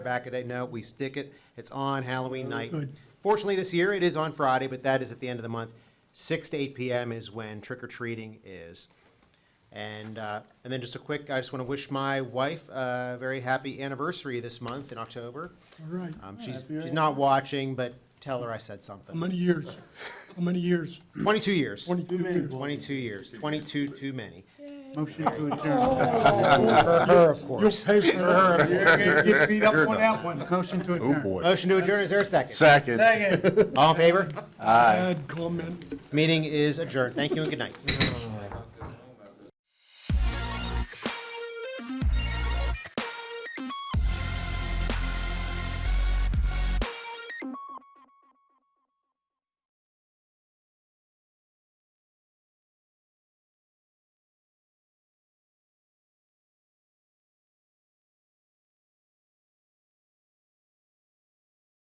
back a day. No, we stick it. It's on Halloween night. Oh, Good. Fortunately, this year it is on Friday, but that is at the end of the month. Six to eight p.m. is when trick or treating is. And uh, and then just a quick, I just want to wish my wife a very happy anniversary this month in October. All right. Um, she's she's not watching, but tell her I said How something. many years? How many years? Twenty-two years. Twenty-two years. Twenty-two years. Twenty-two too many. Motion to adjourn. Oh. For her, of You'll course. pay for her. Get beat up on that one. Motion to adjourn. boy. Motion to adjourn. Is there a second? Second. Second. All in favor? Bad comment. Meeting is adjourned. Thank you and good night.